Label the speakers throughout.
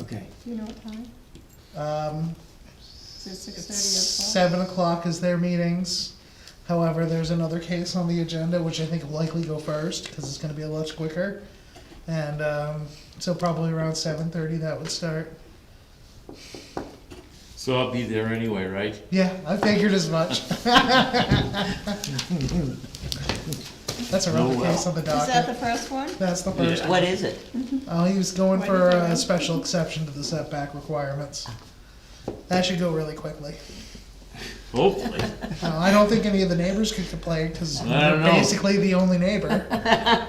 Speaker 1: Okay,
Speaker 2: Do you know what time?
Speaker 3: Um,
Speaker 2: Is it six thirty or twelve?
Speaker 3: Seven o'clock is their meetings. However, there's another case on the agenda, which I think will likely go first, because it's gonna be a lot quicker. And, um, so probably around seven thirty that would start.
Speaker 4: So I'll be there anyway, right?
Speaker 3: Yeah, I figured as much. That's another
Speaker 4: Oh,
Speaker 3: case on the
Speaker 2: Is that
Speaker 3: docket.
Speaker 2: the first one?
Speaker 3: That's the first.
Speaker 1: what is it?
Speaker 3: Oh, he was going
Speaker 2: Why
Speaker 3: for
Speaker 2: did they
Speaker 3: a
Speaker 2: run?
Speaker 3: special exception to the setback requirements. That should go really quickly.
Speaker 4: Hopefully.
Speaker 3: Uh, I don't think any of the neighbors could complain because
Speaker 4: I
Speaker 3: you're
Speaker 4: don't know.
Speaker 3: basically the only neighbor.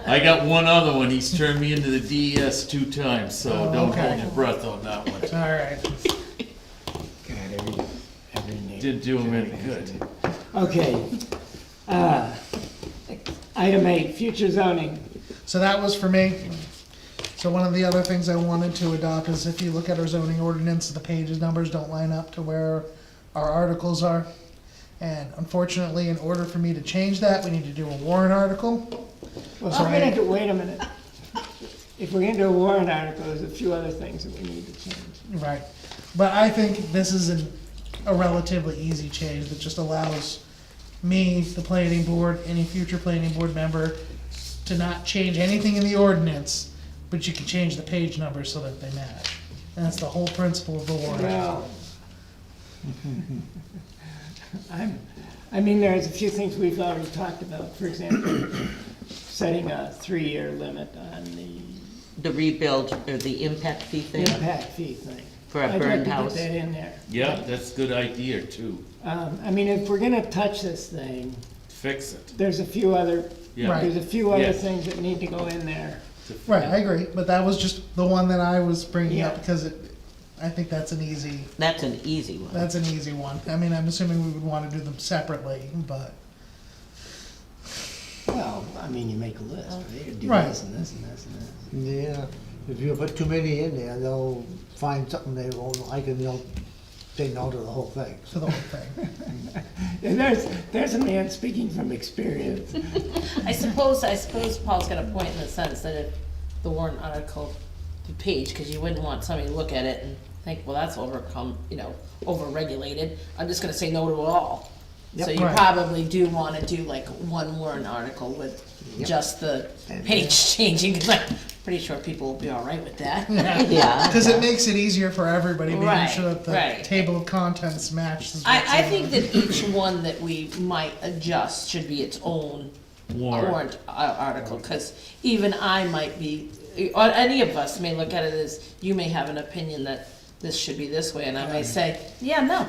Speaker 4: I got one other one. He's turned me into the DES two times, so
Speaker 3: Oh,
Speaker 4: don't
Speaker 3: okay.
Speaker 4: hold your breath on that one.
Speaker 3: All right.
Speaker 1: God, every, every name.
Speaker 4: Didn't do him any good.
Speaker 1: Okay. Uh, Item eight, future zoning.
Speaker 3: So that was for me. So one of the other things I wanted to adopt is if you look at our zoning ordinance, the pages numbers don't line up to where our articles are. And unfortunately, in order for me to change that, we need to do a warrant article.
Speaker 1: Well,
Speaker 3: So
Speaker 1: we're
Speaker 3: I-
Speaker 1: gonna do, Oh, wait a minute. If we're gonna do a warrant article, there's a few other things that we need to change.
Speaker 3: Right. But I think this is an, a relatively easy change that just allows me, the planning board, any future planning board member, to not change anything in the ordinance, but you can change the page numbers so that they match. And that's the whole principle of the warrant.
Speaker 1: Well. I'm, I mean, there's a few things we've already talked about, for example, setting a three-year limit on the
Speaker 5: the rebuild or the impact fee thing
Speaker 1: impact fee thing.
Speaker 5: for a burned house.
Speaker 1: I'd like to put that in there.
Speaker 4: Yeah, that's a good idea too.
Speaker 1: Um, I mean, if we're gonna touch this thing,
Speaker 4: Fix it.
Speaker 1: there's a few other,
Speaker 4: Yeah.
Speaker 3: Right.
Speaker 1: there's a few other
Speaker 4: Yes.
Speaker 1: things that need to go in there.
Speaker 3: Right, I agree, but that was just the one that I was bringing up
Speaker 1: Yeah.
Speaker 3: because it, I think that's an easy,
Speaker 5: That's an easy one.
Speaker 3: that's an easy one. I mean, I'm assuming we would wanna do them separately, but,
Speaker 6: Well, I mean, you make a list, right? You Do
Speaker 3: Right.
Speaker 6: this and this and this and this.
Speaker 7: Yeah, if you put too many in there, they'll find something they won't like and they'll say no to the whole thing.
Speaker 3: for the whole thing.
Speaker 1: There's, there's a man speaking from experience.
Speaker 8: I suppose, I suppose Paul's got a point in the sense that if the warrant article page, cause you wouldn't want somebody to look at it and think, well, that's overcome, you know, overregulated, I'm just gonna say no to it all. So you
Speaker 3: Right.
Speaker 8: probably do wanna do like one warrant article with just the page changing, cause I'm pretty sure people will be alright with that.
Speaker 5: Yeah.
Speaker 3: Because it makes it easier for everybody, making
Speaker 8: Right,
Speaker 3: sure that the
Speaker 8: right.
Speaker 3: table of contents matches. what's
Speaker 8: I, I
Speaker 3: in
Speaker 8: think that each one that we might adjust should be its own
Speaker 4: Warrant.
Speaker 8: warrant ar- article, because even I might be, or any of us may look at it as, you may have an opinion that this should be this way, and I may say, yeah, no,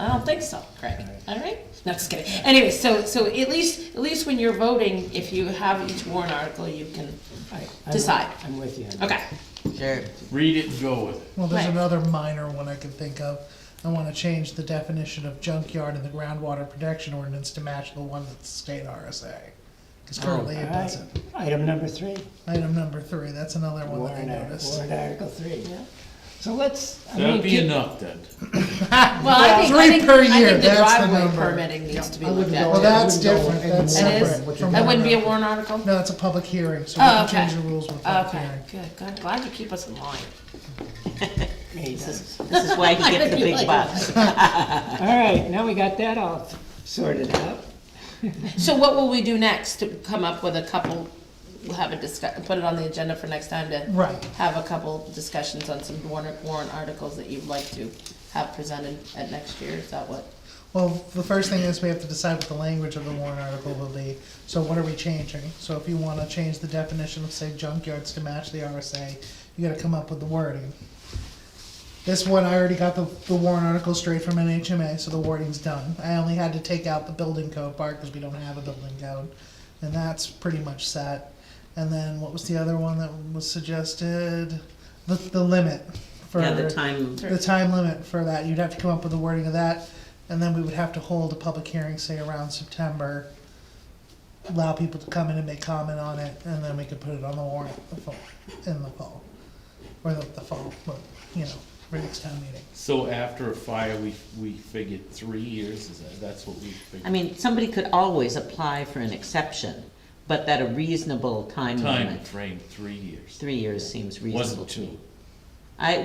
Speaker 8: I don't think so, Craig, all right? No, just kidding. Anyway, so, so at least, at least when you're voting, if you have each warrant article, you can
Speaker 6: I'm-
Speaker 8: decide.
Speaker 6: I'm with you.
Speaker 8: Okay,
Speaker 5: Sure.
Speaker 4: Read it and go with it.
Speaker 3: Well, there's
Speaker 8: Right.
Speaker 3: another minor one I can think of. I want to change the definition of junkyard in the groundwater protection ordinance to match the one that's state RSA. Because currently
Speaker 6: All
Speaker 3: it
Speaker 6: right,
Speaker 3: doesn't.
Speaker 6: item number three,
Speaker 3: Item number three, that's another one that I
Speaker 6: warrant, ar-
Speaker 3: noticed.
Speaker 6: warrant article three. So let's, I mean,
Speaker 4: That'd be
Speaker 6: keep-
Speaker 4: enough then.
Speaker 8: well, I think, I
Speaker 3: Three
Speaker 8: think,
Speaker 3: per
Speaker 8: I
Speaker 3: year,
Speaker 8: think the
Speaker 3: that's the
Speaker 8: driveway
Speaker 3: number.
Speaker 8: permitting needs to be
Speaker 6: I
Speaker 8: looked
Speaker 6: wouldn't
Speaker 8: at.
Speaker 6: go-
Speaker 3: Well,
Speaker 8: too.
Speaker 3: that's
Speaker 6: Wouldn't go
Speaker 3: different,
Speaker 6: in
Speaker 3: that's
Speaker 8: It is?
Speaker 3: separate from.
Speaker 8: That wouldn't be a
Speaker 3: warrant.
Speaker 8: warrant article?
Speaker 3: No, it's a public hearing, so we
Speaker 8: Oh,
Speaker 3: can
Speaker 8: okay.
Speaker 3: change the rules with public
Speaker 8: Okay,
Speaker 3: hearing.
Speaker 8: good, good, glad you keep us in line.
Speaker 6: Hey, done.
Speaker 5: This is why he gets the big bucks.
Speaker 6: all right, now we got that all sorted out.
Speaker 8: So what will we do next to come up with a couple, we'll have a discuss, put it on the agenda for next time to
Speaker 3: Right.
Speaker 8: have a couple discussions on some warrant, warrant articles that you'd like to have presented at next year, is that what?
Speaker 3: Well, the first thing is we have to decide what the language of the warrant article will be. So what are we changing? So if you wanna change the definition of, say, junkyards to match the RSA, you gotta come up with the wording. This one, I already got the, the warrant article straight from NHMA, so the wording's done. I only had to take out the building code part, cause we don't have a building code. And that's pretty much set. And then what was the other one that was suggested? The, the limit for
Speaker 5: Yeah, the time,
Speaker 3: the time limit for that, you'd have to come up with the wording of that, and then we would have to hold a public hearing, say around September. Allow people to come in and make comment on it, and then we could put it on the warrant the fall, in the fall, or the, the fall, but, you know, for next town meeting.
Speaker 4: So after a fire, we, we figured three years, is that, that's what we
Speaker 5: I
Speaker 4: figured.
Speaker 5: mean, somebody could always apply for an exception, but at a reasonable time
Speaker 4: Time
Speaker 5: limit.
Speaker 4: frame, three years.
Speaker 5: Three years seems reasonable
Speaker 4: Wasn't
Speaker 5: to
Speaker 4: two.
Speaker 5: me. I,